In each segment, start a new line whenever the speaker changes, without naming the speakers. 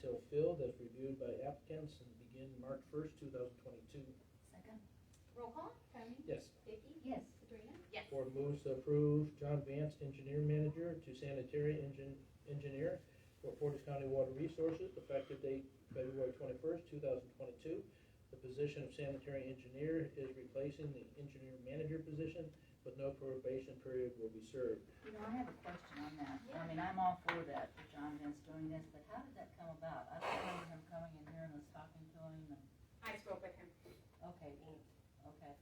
till filled as reviewed by applicants and begin March first, two thousand twenty-two.
Second?
Roll call?
Tony,
Yes.
Vicky,
Yes.
Sabrina,
Yes.
Board moves to approve John Vance, engineer manager, to sanitary engin- engineer for Portage County Water Resources, effective date February twenty-first, two thousand twenty-two. The position of sanitary engineer is replacing the engineer manager position, but no probation period will be served.
You know, I have a question on that.
Yeah.
I mean, I'm all for that, for John Vince doing this, but how did that come about? I don't remember him coming in here and us talking to him and,
I spoke with him.
okay, well, okay.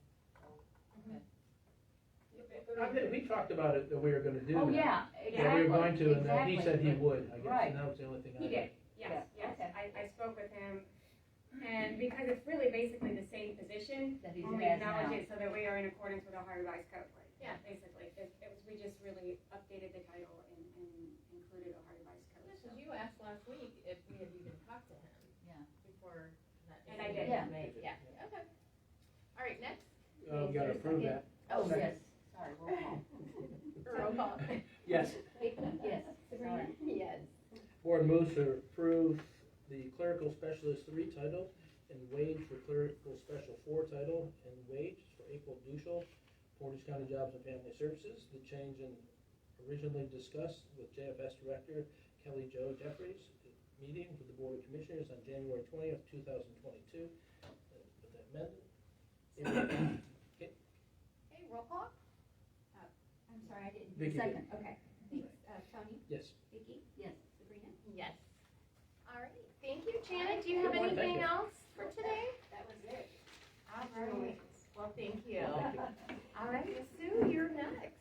I think we talked about it, that we were gonna do.
Oh,
that.
yeah,
Yeah, we were going
exactly,
to, and then he said he
exactly.
would, I guess,
Right.
and that was the only thing I.
He did, yes,
Yeah,
yes.
okay.
I, I spoke with him. And because it's really basically the same position,
That he's
only
has now.
acknowledge it so Oh, that we are in accordance with Ohio Revised Code. like,
Yeah.
Basically, it, it was, we just really updated the title and, and included Ohio Revised Code. so.
because you asked last week if we had even talked to him.
Yeah.
Before that.
And I did.
Yeah.
Right, Yeah, okay. All right, next.
Uh, we gotta approve that.
Oh,
Second.
yes, sorry, roll call.
Roll call.
Yes.
Vicky,
Yes,
Sabrina,
sorry.
yes.
Board moves to approve the clerical specialist three title and wage for clerical special four title and wage for April Duschel, Portage County Jobs and Family Services. The change in originally discussed with JFS Director Kelly Jo Jeffries, meeting with the Board of Commissioners on January twentieth, two thousand twenty-two. With that amendment.
Okay, roll call?
I'm sorry, I didn't.
Vicky did.
Second.
Okay, thanks, uh, Tony,
Yes.
Vicky,
Yes.
Sabrina.
Yes. All right, thank you, Janet. Do you have
Good morning.
anything
Thank
else for today?
That was it.
All right, well, thank you.
Well, thank you.
All right, Sue, you're next.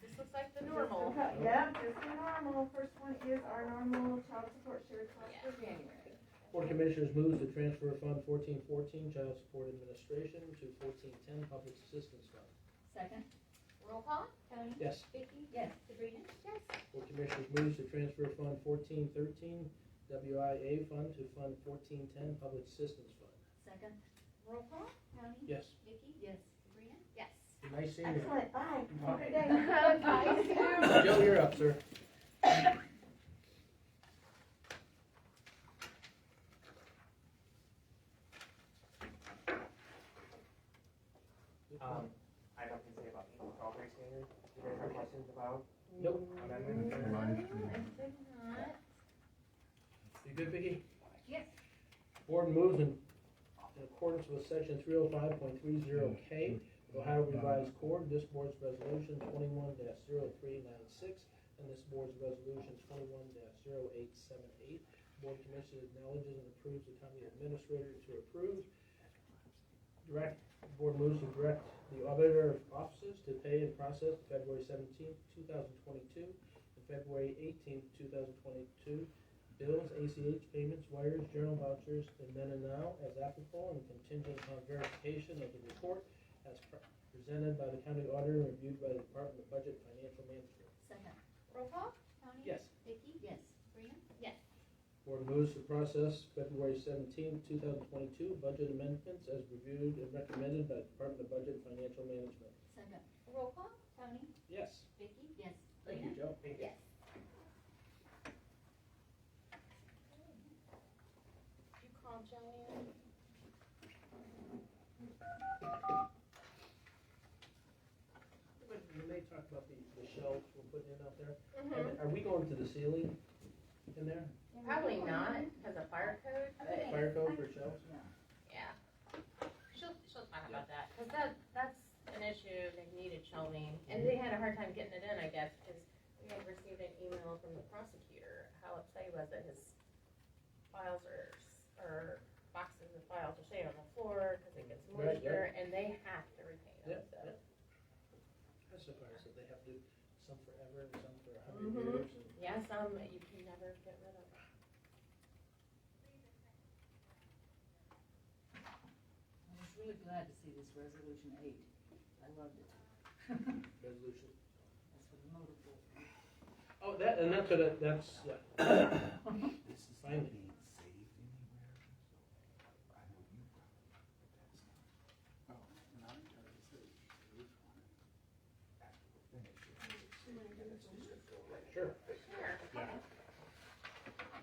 This looks like the normal.
Yeah, just the normal. First one is our normal child support share cost for January.
Board of Commissioners moves to transfer Fund fourteen fourteen Child Support Administration to fourteen ten Public Assistance Fund.
Second?
Roll call?
Tony,
Yes,
Vicky,
Yes.
Sabrina.
Yes.
Board of Commissioners moves to transfer Fund fourteen thirteen WIA Fund to Fund fourteen ten Public Assistance Fund.
Second?
Roll call?
Tony,
Yes,
Vicky,
Yes.
Sabrina.
Yes.
nice seeing you.
Excellent, bye. Have a good day.
Bye, Sue.
Joe, you're up, sir.
Um, I have nothing to say about the equal property standard. Do you guys have questions about
Nope,
amendments? or-
you good, Vicky?
Yes.
Board moves in in accordance with section three oh five point three zero K, Ohio Revised Code, this board's resolution twenty-one 396 and this board's resolution twenty-one 878 Board Commission acknowledges and approves the county administrator to approve. Direct, board moves to direct the auditor of offices to pay and process February seventeenth, two thousand twenty-two, and February eighteenth, two thousand twenty-two, bills, ACH payments, wires, journal vouchers, and then and now as applicable and contingent upon verification of the report as pre- presented by the county auditor and reviewed by the Department of Budget and Financial Management.
Second?
Roll call?
Tony.
Yes.
Vicky,
Yes.
Sabrina.
Board moves to process February seventeenth, two thousand twenty-two, budget amendments as reviewed and recommended by the Department of Budget and Financial Management.
Second?
Roll call?
Tony,
Yes.
Vicky,
Yes.
Thank you, Joe.
Thank you.
Yes. You call Joanne?
When when they talk about the, the shelves we're putting in out there,
Mm-hmm.
are- are we going to the ceiling in there?
Probably not, because of fire code, but,
Fire code for shelves?
yeah. She'll, she'll talk about that, because that, that's an issue, they needed shelving, and they had a hard time getting it in, I guess, because we had received an email from the prosecutor, how upset he was that his files are, or boxes of files are sitting on the floor, because it gets
Right, right.
moisture, and they have to retain them,
Yep,
so.
yep. I'm surprised that they have to, do some forever and some for a
Mhm.
hundred years. and-
Yeah, some that you can never get rid of.
I was really glad to see this resolution eight. I loved it. That's
Resolution.
what motivated me.
Oh, that, and that's what, it- that's, yeah. Oh,